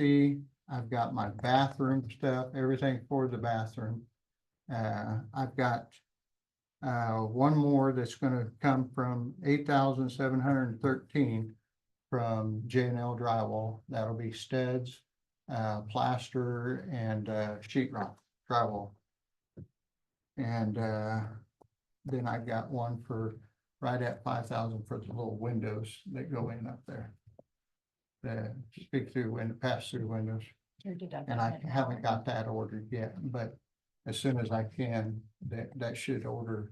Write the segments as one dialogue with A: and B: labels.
A: see, I've got my bathroom stuff, everything for the bathroom. Uh, I've got uh, one more that's gonna come from eight thousand seven hundred and thirteen from J and L drywall. That'll be studs, uh, plaster and, uh, sheet rock drywall. And, uh, then I've got one for right at five thousand for the little windows that go in up there. The speak through window, pass through windows.
B: Your deductible
A: And I
B: didn't
A: haven't
B: cover.
A: got that ordered yet, but as soon as I can, that, that should order.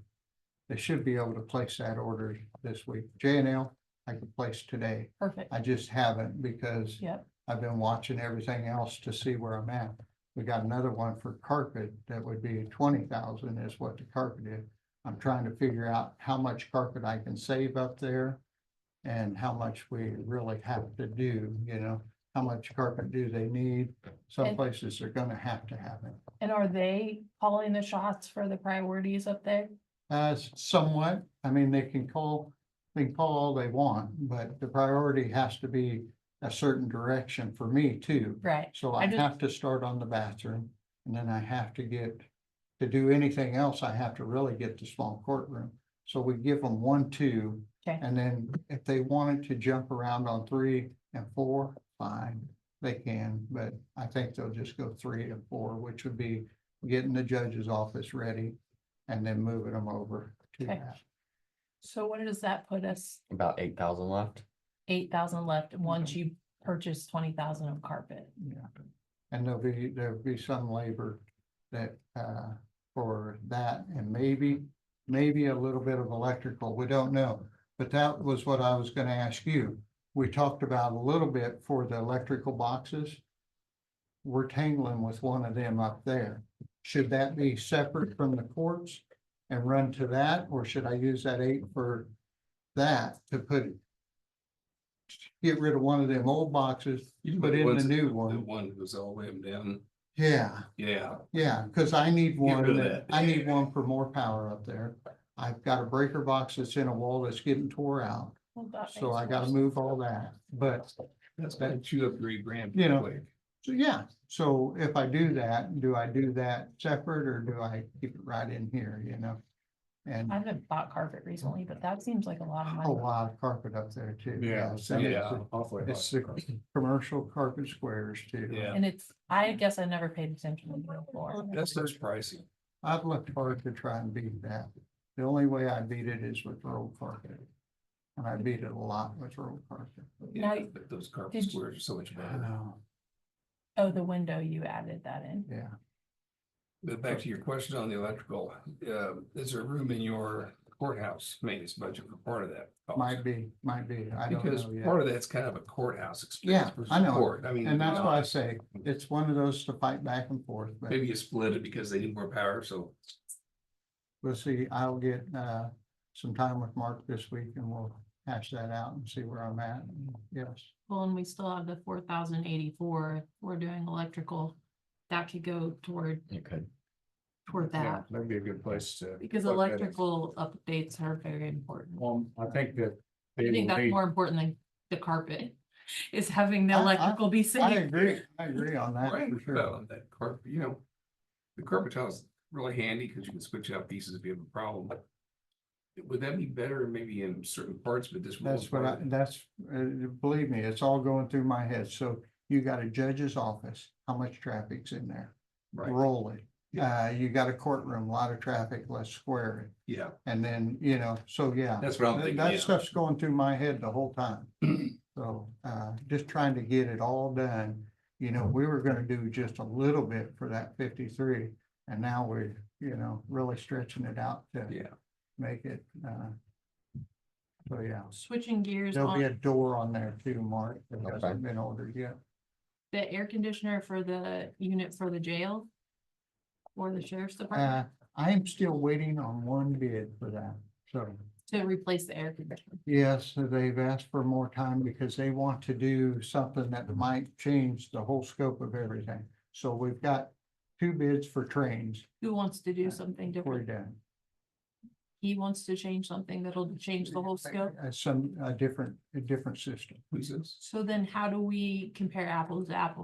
A: They should be able to place that order this week. J and L, I could place today.
B: Perfect,
A: I just haven't because
B: yep,
A: I've been watching everything else to see where I'm at. We got another one for carpet that would be twenty thousand is what the carpet is. I'm trying to figure out how much carpet I can save up there. And how much we really have to do, you know, how much carpet do they need? Some
B: And-
A: places are gonna have to have it.
B: and are they calling the shots for the priorities up there?
A: Uh, s- somewhat, I mean, they can call, they can call all they want, but the priority has to be a certain direction for me too.
B: Right,
A: So
B: I
A: I
B: just-
A: have to start on the bathroom and then I have to get, to do anything else, I have to really get the small courtroom. So we give them one, two.
B: Okay.
A: And then if they wanted to jump around on three and four, fine, they can, but I think they'll just go three and four, which would be getting the judge's office ready and then moving them over to
B: Okay.
A: that.
B: so what does that put us?
C: About eight thousand left.
B: Eight thousand left, once you purchase twenty thousand of carpet.
A: Yeah, and there'll be, there'll be some labor that, uh, for that and maybe, maybe a little bit of electrical, we don't know. But that was what I was gonna ask you. We talked about a little bit for the electrical boxes. We're tangling with one of them up there. Should that be separate from the courts and run to that, or should I use that eight for that to put? Get rid of one of them old boxes,
D: You
A: put in
D: put
A: the
D: ones-
A: new
D: The
A: one.
D: one who's all the way up and down,
A: Yeah,
D: yeah,
A: yeah, cause I need one,
D: rid of
A: that-
D: that.
A: I need one for more power up there. I've got a breaker box that's in a wall that's getting tore out.
B: Well, that
A: So
B: makes
A: I gotta
B: sense.
A: move all that, but,
D: that's about two up three grand.
A: You know.
D: quick.
A: so yeah, so if I do that, do I do that separate or do I keep it right in here, you know? And
B: I haven't bought carpet recently, but that seems like a lot of
A: a
B: money.
A: lot of carpet up there too. so
D: Yeah,
A: it's-
D: halfway.
A: It's the commercial carpet squares too.
D: Yeah.
B: And it's, I guess I never paid attention to the floor.
D: That's just pricey.
A: I've looked hard to try and beat that. The only way I beat it is with road carpet. And I beat it a lot with road carpet.
D: Yeah,
B: Now-
D: but those carpet
B: Did-
D: squares are so much
A: I
D: better.
A: know,
B: Oh, the window, you added that in.
A: Yeah,
D: But back to your question on the electrical, uh, is there room in your courthouse maintenance budget for part of that? cost?
A: might be, might be, I don't
D: Because
A: know yet.
D: part of that's kind of a courthouse
A: Yeah,
D: expense. versus
A: I know.
D: court. I mean.
A: And that's why I
D: uh,
A: say, it's one of those to fight back and forth, but
D: Maybe you split it because they need more power, so
A: we'll see, I'll get, uh, some time with Mark this week and we'll hash that out and see where I'm at, yes.
B: Well, and we still have the four thousand eighty-four, we're doing electrical. That could go toward,
C: You could.
B: toward
E: Yeah,
B: that,
E: that'd be a good place to.
B: because
E: put that in.
B: electrical updates are very important.
E: Um, I think that. they
B: I
E: will
B: think that's
E: need-
B: more important than the carpet, is having the
A: I- I-
B: electrical be
A: I
B: safe.
A: agree, I agree on that
D: Right,
A: for sure.
D: well, that carpet, you know, the carpet tile is really handy because you can switch out pieces if you have a problem. Would that be better maybe in certain parts, but this.
A: That's what I, that's, uh, believe me, it's all going through my head, so you got a judge's office, how much traffic's in there?
D: Right,
A: Roll it, uh, you got a courtroom, a lot of traffic, let's square
D: yeah,
A: it, and then, you know, so yeah.
D: that's what I'm
A: That
D: thinking,
A: that
D: yeah.
A: stuff's going through my head the whole time. So, uh, just trying to get it all done. You know, we were gonna do just a little bit for that fifty-three. And now we're, you know, really stretching it out to
D: Yeah.
A: make it, uh. So, yeah,
B: Switching gears
A: there'll be a
B: on
A: door on there too, Mark, that
C: Okay.
A: hasn't been ordered yet.
B: the air conditioner for the unit for the jail. Or the sheriff's department
A: Uh, I am still waiting on one bid for that, so.
B: to replace the air conditioner.
A: Yes, so they've asked for more time because they want to do something that might change the whole scope of everything. So we've got two bids for trains.
B: Who wants to
A: Uh,
B: do something
A: We're
B: different?
A: done.
B: He wants to change something that'll change the whole scope.
A: Uh, Some, a different, a different system.
D: Who's this?
B: So then how do we compare apples to apples?